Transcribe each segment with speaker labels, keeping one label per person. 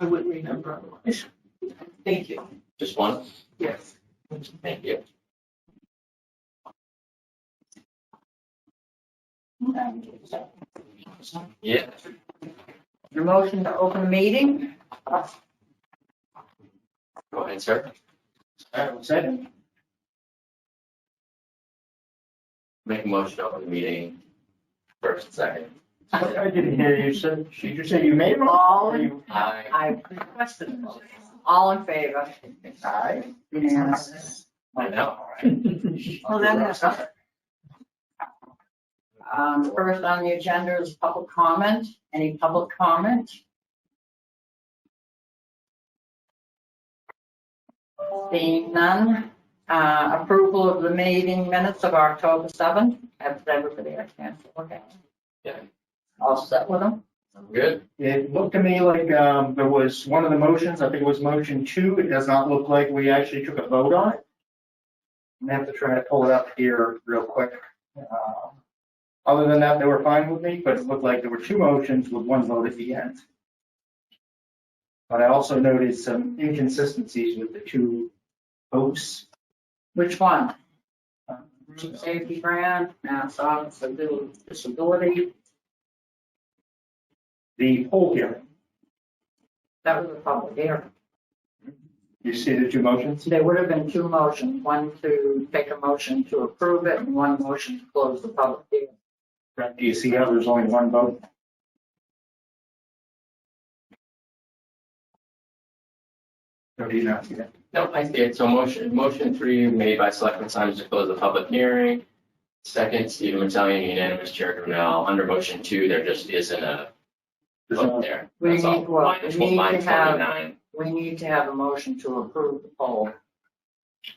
Speaker 1: I wouldn't remember otherwise. Thank you.
Speaker 2: Just one?
Speaker 1: Yes.
Speaker 2: Thank you. Yeah.
Speaker 3: Your motion to open meeting?
Speaker 2: Go ahead, sir.
Speaker 3: All right, one second.
Speaker 2: Make a motion to open the meeting. First, second.
Speaker 3: I I didn't hear you, so, did you say you made a
Speaker 4: All in,
Speaker 3: motion?
Speaker 2: Aye.
Speaker 4: I requested a vote. All in favor?
Speaker 3: Aye.
Speaker 4: Yes.
Speaker 2: I know.
Speaker 4: Well, then, that's all. Um, first on the agenda is public comment. Any public comment? Seeing none, uh, approval of the meeting minutes of October seventh. Have everybody had a chance to look at? them?
Speaker 2: Yeah.
Speaker 4: All set with them?
Speaker 2: Good.
Speaker 3: It looked to me like, um, there was one of the motions, I think it was motion two, it does not look like we actually took a vote on it. I'm gonna have to try to pull it up here real quick. Uh, Other than that, they were fine with me, but it looked like there were two motions with one vote at the end. But I also noted some inconsistencies with the two votes.
Speaker 4: Which one? Safety grant, mass office of disability.
Speaker 3: The poll hearing,
Speaker 4: That was a public hearing.
Speaker 3: you see the two motions?
Speaker 4: There would have been two motions, one to take a motion to approve it and one motion to close the public hearing.
Speaker 3: Do you see how there's only one vote? Or do you not see that?
Speaker 2: No, I see it. So motion, motion three made by Selectman Simons to close the public hearing. Second, Stephen Metalian, unanimous, Chair Brunel. Under motion two, there just isn't a
Speaker 3: There's
Speaker 2: vote
Speaker 3: no-
Speaker 2: there.
Speaker 4: We
Speaker 2: That's all.
Speaker 4: need- well,
Speaker 2: Minus
Speaker 4: we need
Speaker 2: one,
Speaker 4: to
Speaker 2: minus
Speaker 4: have-
Speaker 2: twenty-nine.
Speaker 4: We need to have a motion to approve the poll.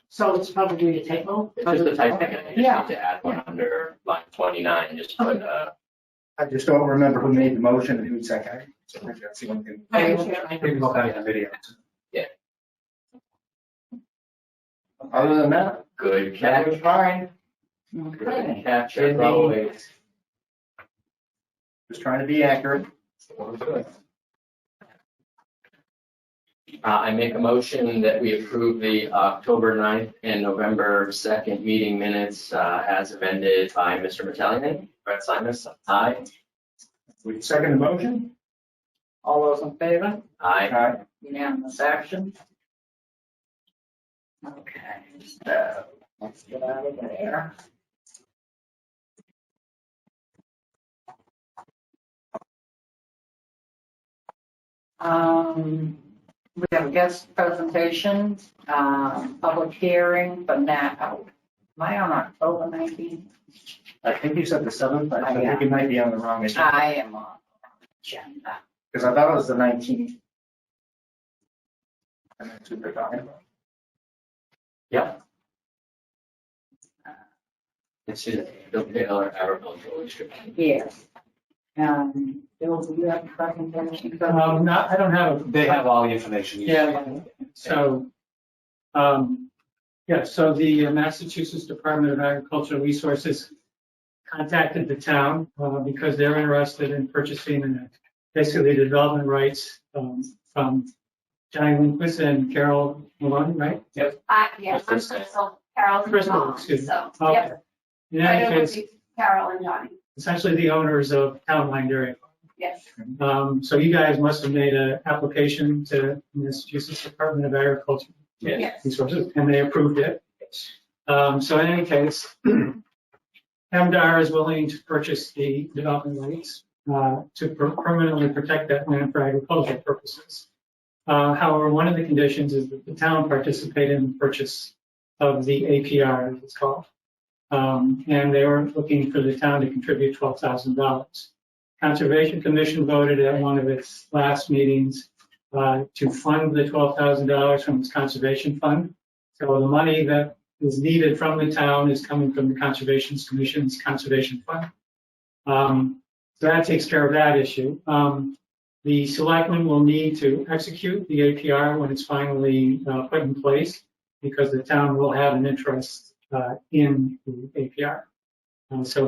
Speaker 1: So it's probably a typo?
Speaker 2: It's just a type thing. I just need
Speaker 4: Yeah.
Speaker 2: to add one under line twenty-nine, just put, uh,
Speaker 3: I just don't remember who made the motion and who seconded. it. So maybe that's the one thing. Maybe look at the video.
Speaker 2: Yeah.
Speaker 3: Other than that,
Speaker 2: good
Speaker 3: that
Speaker 2: catch.
Speaker 3: was fine.
Speaker 2: Good
Speaker 4: Okay.
Speaker 2: catch,
Speaker 3: Good
Speaker 2: as
Speaker 3: name.
Speaker 2: always.
Speaker 3: Just trying to be accurate.
Speaker 2: Uh, I make a motion that we approve the uh, October 9th and November second meeting minutes, uh, as amended by Mr. Metalian. Brett Simons, aye.
Speaker 3: We second the motion. Uh,
Speaker 4: All those in favor?
Speaker 2: Aye.
Speaker 3: Aye.
Speaker 4: Unanimous action? Okay, so let's get out of there. Um, we have a guest presentation, um, public hearing, but now, oh, am I on October nineteenth?
Speaker 3: I think you said the seventh, but I
Speaker 4: Oh, yeah.
Speaker 3: think you might be on the wrong agenda,
Speaker 4: I am on agenda.
Speaker 3: because I thought it was the nineteenth. And that's what they're talking about.
Speaker 2: This is the Taylor Agricultural District.
Speaker 4: Yes. Um, Bill, do you have a presentation?
Speaker 5: Um, not, I don't have,
Speaker 6: They have all the information. you
Speaker 5: Yeah.
Speaker 6: need.
Speaker 5: so, um, yeah, so the Massachusetts Department of Agricultural Resources contacted the town, uh, because they're interested in purchasing and basically the development rights, um, from Johnny Lindquist and Carol Maloney, right?
Speaker 7: I, yeah, I'm
Speaker 2: Kristen.
Speaker 7: Crystal, Carol's
Speaker 5: Crystal,
Speaker 7: mom, so,
Speaker 5: excuse me. Oh,
Speaker 7: yep.
Speaker 5: Okay. In
Speaker 7: Right
Speaker 5: any
Speaker 7: over
Speaker 5: case,
Speaker 7: to Carol and Johnny,
Speaker 5: essentially the owners of Town Line Dairy
Speaker 7: yes.
Speaker 5: Um, so you guys must have made an application to Massachusetts Department of Agriculture.
Speaker 2: Yes.
Speaker 5: Resources, and they approved it. Um, so in any case, MDR is willing to purchase the development rights, uh, to per- permanently protect that land for agricultural purposes. Uh, however, one of the conditions is that the town participate in the purchase of the APR, as it's called. Um, and they were looking for the town to contribute twelve thousand dollars. Conservation Commission voted at one of its last meetings uh, to fund the twelve thousand dollars from its conservation fund. So the money that is needed from the town is coming from the Conservation Commission's conservation fund. Um, So that takes care of that issue. Um, The selectmen will need to execute the APR when it's finally uh, put in place because the town will have an interest uh, in the APR. Uh, So